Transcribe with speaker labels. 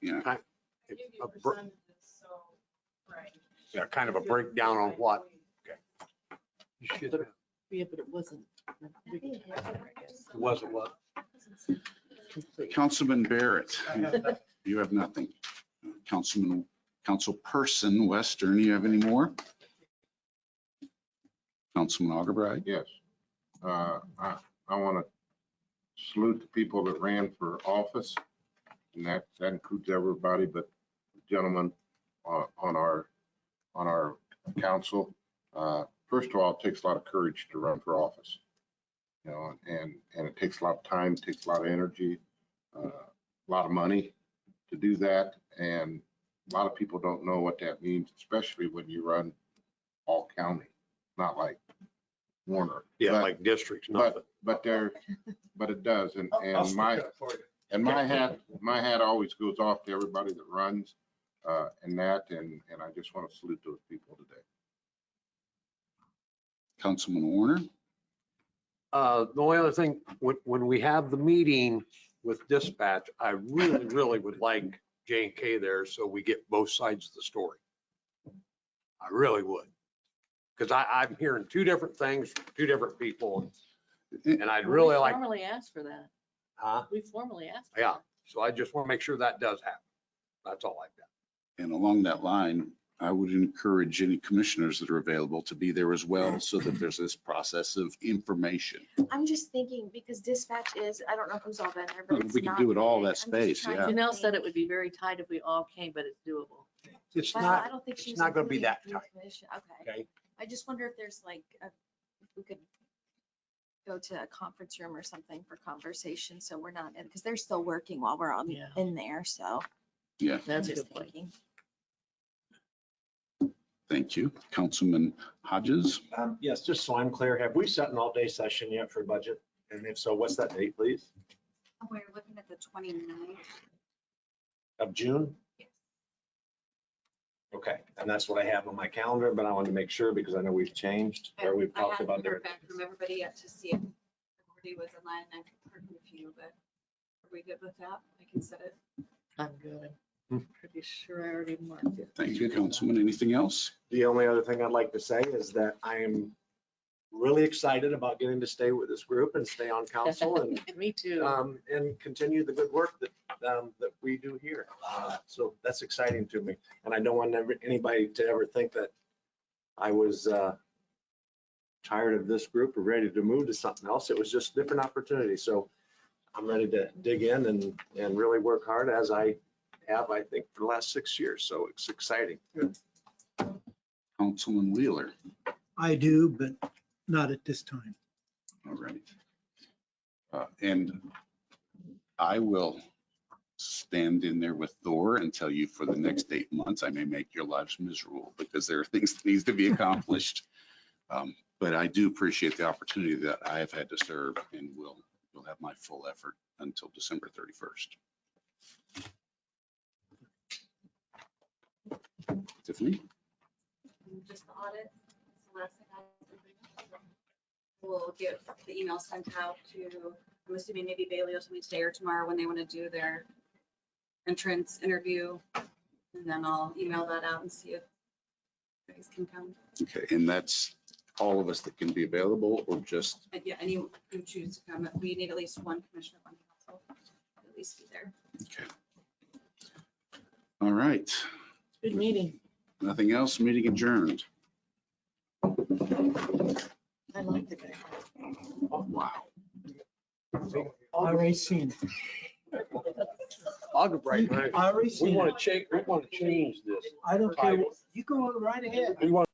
Speaker 1: Yeah.
Speaker 2: I-
Speaker 3: I give you
Speaker 2: a br-
Speaker 3: percentages, so, right.
Speaker 2: Yeah, kind of a breakdown on what. you should have.
Speaker 4: Yeah, but it wasn't. we can talk about it, I guess,
Speaker 2: It wasn't what.
Speaker 4: complete.
Speaker 1: Councilman Barrett, you have nothing. Councilman, Councilperson Western, you have any more? Councilman Augubright?
Speaker 5: Yes. Uh, I, I want to salute the people that ran for office. And that, that includes everybody but gentlemen on, on our, on our council. Uh, First of all, it takes a lot of courage to run for office. You know, and, and it takes a lot of time, it takes a lot of energy, uh, a lot of money to do that. And a lot of people don't know what that means, especially when you run all county, not like Warner.
Speaker 2: Yeah,
Speaker 5: But-
Speaker 2: like districts, nothing.
Speaker 5: but, but there, but it does, and,
Speaker 6: I'll- I'll
Speaker 5: and
Speaker 6: stick
Speaker 5: my,
Speaker 6: up for you.
Speaker 5: and my hat, my hat always goes off to everybody that runs, uh, and that, and, and I just want to salute those people today.
Speaker 1: Councilman Warner?
Speaker 2: Uh, the only other thing, when, when we have the meeting with dispatch, I really, really would like J and K there so we get both sides of the story. I really would. Because I, I'm hearing two different things, from two different people, and I'd really
Speaker 4: We
Speaker 2: like,
Speaker 4: Formally asked for that.
Speaker 2: huh?
Speaker 4: We formally asked. for
Speaker 2: Yeah,
Speaker 4: that.
Speaker 2: so I just want to make sure that does happen. That's all I've got.
Speaker 1: And along that line, I would encourage any commissioners that are available to be there as well so that there's this process of information.
Speaker 7: I'm just thinking, because dispatch is, I don't know who's all been there, but it's
Speaker 1: We can
Speaker 7: not
Speaker 1: do it all
Speaker 7: big.
Speaker 1: that
Speaker 7: I'm just
Speaker 1: space,
Speaker 7: trying
Speaker 1: yeah.
Speaker 7: to
Speaker 4: Janelle said
Speaker 7: think.
Speaker 4: it would be very tight if we all came, but it's doable.
Speaker 2: It's
Speaker 7: Well,
Speaker 2: not,
Speaker 7: I don't think
Speaker 2: it's
Speaker 7: she was
Speaker 2: not gonna be
Speaker 7: including
Speaker 2: that
Speaker 7: the
Speaker 2: tight.
Speaker 7: commission. Okay.
Speaker 2: okay?
Speaker 7: I just wonder if there's like, a- if we could go to a conference room or something for conversation, so we're not, because they're still working while we're on,
Speaker 4: Yeah.
Speaker 7: in there, so.
Speaker 1: Yeah,
Speaker 7: I'm
Speaker 4: That's a
Speaker 7: just
Speaker 4: good point.
Speaker 7: thinking.
Speaker 1: thank you. Councilman Hodges?
Speaker 6: Um, Yes, just so I'm clear, have we set an all-day session yet for budget? And if so, what's that date, please?
Speaker 8: We're looking at the 29th.
Speaker 6: Of June?
Speaker 8: Yes.
Speaker 6: Okay, and that's what I have on my calendar, but I wanted to make sure because I know we've changed or we've
Speaker 8: I
Speaker 6: talked
Speaker 8: hadn't
Speaker 6: about
Speaker 8: heard
Speaker 6: different.
Speaker 8: back from everybody yet to see if everybody was in line. I've heard from a few, but are we good with that? I can set it.
Speaker 4: I'm good.
Speaker 2: Hmm.
Speaker 4: I'm Pretty sure I already marked it.
Speaker 1: Thank you, Councilman. Anything else?
Speaker 6: The only other thing I'd like to say is that I am really excited about getting to stay with this group and stay on council and
Speaker 4: Me too.
Speaker 2: Uh,
Speaker 6: um, and continue the good work that, um, that we do here. Uh, So that's exciting to me. And I don't want ever- anybody to ever think that I was, uh, tired of this group or ready to move to something else. It was just different opportunity. So I'm ready to dig in and, and really work hard as I have, I think, for the last six years. So it's exciting.
Speaker 1: Councilman Wheeler?
Speaker 9: I do, but not at this time.
Speaker 1: All right. Uh, And I will stand in there with Thor and tell you for the next eight months, I may make your lives miserable because there are things that needs to be accomplished. Um, But I do appreciate the opportunity that I have had to serve and will, will have my full effort until December 31st. Tiffany?
Speaker 8: Just the audit. It's the last thing I- We'll get the email sent out to, I'm assuming maybe Bailey will tell me today or tomorrow when they want to do their entrance interview. And then I'll email that out and see if you guys can come.
Speaker 1: Okay, and that's all of us that can be available or just
Speaker 8: But yeah, any who choose to come, we need at least one commissioner, one council, at least be there.
Speaker 1: All right,
Speaker 4: Good meeting.
Speaker 1: nothing else, meeting adjourned.
Speaker 4: I like the guy.
Speaker 1: Wow.
Speaker 9: Already seen.
Speaker 2: Algebrite,
Speaker 9: Already
Speaker 2: we
Speaker 9: seen.
Speaker 2: want to change, we want to change this.
Speaker 9: I don't care. what- You go right ahead.
Speaker 2: We want